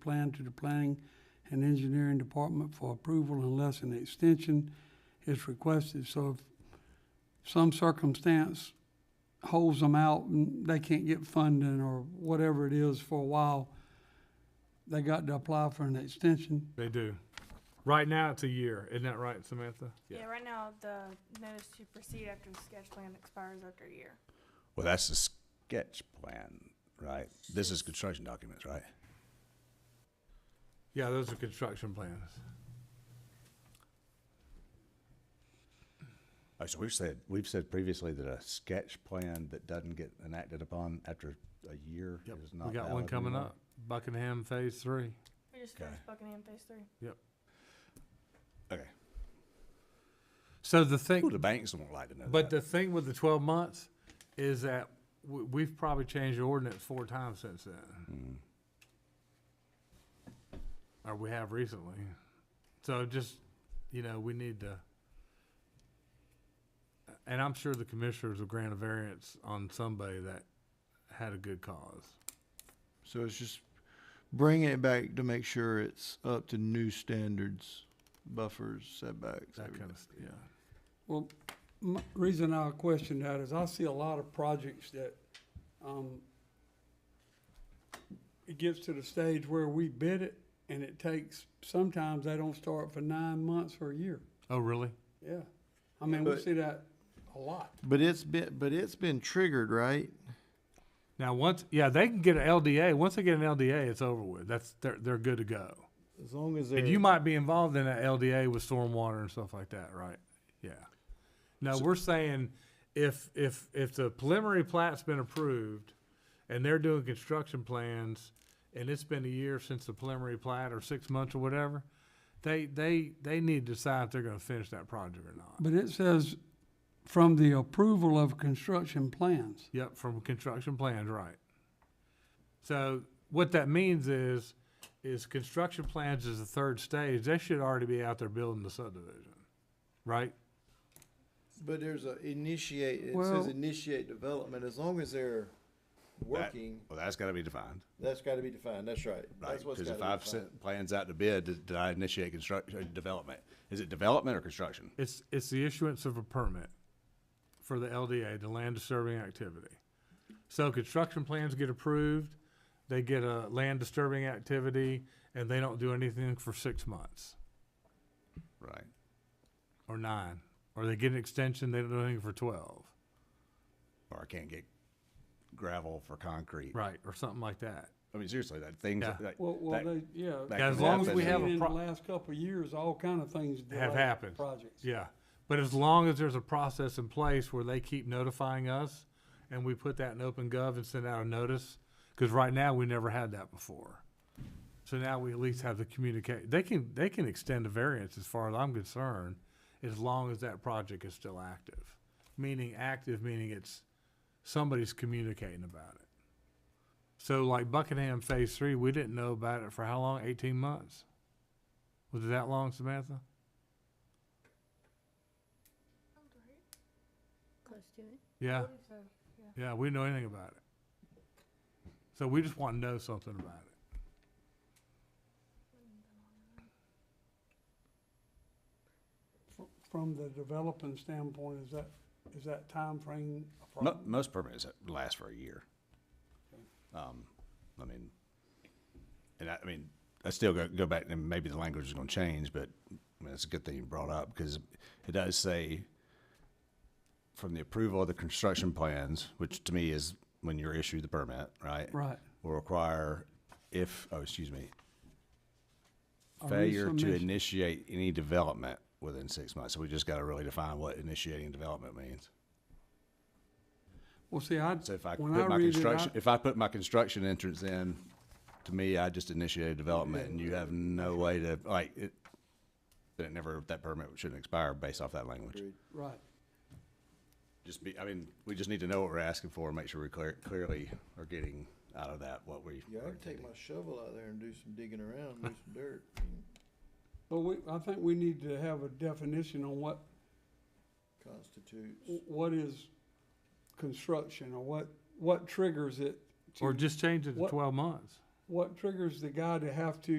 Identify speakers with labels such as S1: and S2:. S1: plan to the Planning and Engineering Department for approval unless an extension is requested. So if some circumstance holds them out and they can't get funding or whatever it is for a while, they got to apply for an extension.
S2: They do. Right now, it's a year. Isn't that right, Samantha?
S3: Yeah, right now, the notice to proceed after the sketch plan expires after a year.
S4: Well, that's the sketch plan, right? This is construction documents, right?
S2: Yeah, those are construction plans.
S4: Oh, so we've said, we've said previously that a sketch plan that doesn't get enacted upon after a year is not
S2: We got one
S4: valid
S2: coming
S4: anymore?
S2: up, Buckingham Phase Three.
S3: We just
S4: Okay.
S3: finished Buckingham Phase Three.
S4: Okay.
S2: So the
S4: Well, the
S2: thing,
S4: banks won't like to know
S2: but
S4: that.
S2: the thing with the twelve months is that we, we've probably changed the ordinance four times since then,
S4: Mm.
S2: or we have recently. So just, you know, we need to. And I'm sure the commissioners will grant a variance on somebody that had a good cause.
S5: So it's just bringing it back to make sure it's up to new standards, buffers, setbacks,
S2: That kind
S5: everything.
S2: of, st- yeah.
S1: Well, m reason I question that is I see a lot of projects that, um, it gets to the stage where we bid it and it takes, sometimes they don't start for nine months or a year.
S2: Oh, really?
S1: Yeah. I mean, we
S5: But-
S1: see that a lot.
S5: But it's been, but it's been triggered, right?
S2: Now, once, yeah, they can get an LDA. Once they get an LDA, it's over with. That's they're they're good to go.
S5: As long as
S2: And
S5: they're,
S2: you might be involved in an LDA with stormwater and stuff like that, right? Yeah. No, we're saying if if if the preliminary plat's been approved, and they're doing construction plans, and it's been a year since the preliminary plat or six months or whatever, they they they need to decide if they're going to finish that project or not.
S1: But it says from the approval of construction plans.
S2: Yep, from construction plans, right. So what that means is, is construction plans is the third stage, they should already be out there building the subdivision, right?
S5: but there's a initiate, it
S1: Well-
S5: says initiate development, as long as they're working,
S4: Well, that's gotta be defined,
S5: that's gotta be defined, that's right.
S4: right?
S5: That's what's
S4: Because if
S5: gotta
S4: I've
S5: be defined.
S4: sent plans out to bid, did did I initiate construction, development? Is it development or construction?
S2: It's, it's the issuance of a permit for the LDA, the land disturbing activity. So construction plans get approved, they get a land disturbing activity, and they don't do anything for six months,
S4: Right.
S2: or nine, or they get an extension, they don't do anything for twelve,
S4: Or I can't get gravel for concrete.
S2: right, or something like that.
S4: I mean, seriously, that things,
S2: Yeah.
S4: like,
S1: Well, well,
S4: that-
S1: they, yeah.
S4: that Yeah, as can long as we
S2: happen. have a
S1: In the
S2: pro-
S1: last couple of years, all kind of things. delay
S2: happened.
S1: Projects.
S2: Yeah, but as long as there's a process in place where they keep notifying us and we put that in open gov and send out a notice, because right now we never had that before. So now we at least have the communicate, they can, they can extend a variance as far as I'm concerned, as long as that project is still active. Meaning active, meaning it's, somebody's communicating about it. So like Buckingham Phase Three, we didn't know about it for how long? Eighteen months? Was it that long, Samantha?
S6: Close to it.
S2: Yeah?
S3: I believe so.
S2: Yeah, we didn't know anything about it. So we just want to know something about it.
S1: From the developing standpoint, is that, is that timeframe a
S4: Mo-
S1: problem?
S4: most permits last for a year. Um, I mean, and I, I mean, I still go, go back and maybe the language is going to change, but I mean, it's a good thing you brought up because it does say from the approval of the construction plans, which to me is when you're issued the permit, right?
S1: Right.
S4: Will require if, oh, excuse me,
S1: A
S4: failure to
S1: resubmission.
S4: initiate any development within six months. So we just got to really define what initiating development means.
S1: Well, see, I,
S4: So if I
S1: when
S4: put
S1: I
S4: my
S1: read it,
S4: construction,
S1: I,
S4: if I put my construction entrance in, to me, I just initiated development and you have no way to, like, it, then it never, that permit shouldn't expire based off that language.
S5: Agreed.
S1: right.
S4: Just be, I mean, we just need to know what we're asking for and make sure we clear, clearly are getting out of that what we.
S5: Yeah, I
S4: are
S5: can take
S4: intending.
S5: my shovel out there and do some digging around, do some dirt. I mean,
S1: But we, I think we need to have a definition on what,
S5: Constitutes.
S1: what is construction or what, what triggers it. to-
S2: Or just change it to
S1: What-
S2: twelve months.
S1: what triggers the guy to have to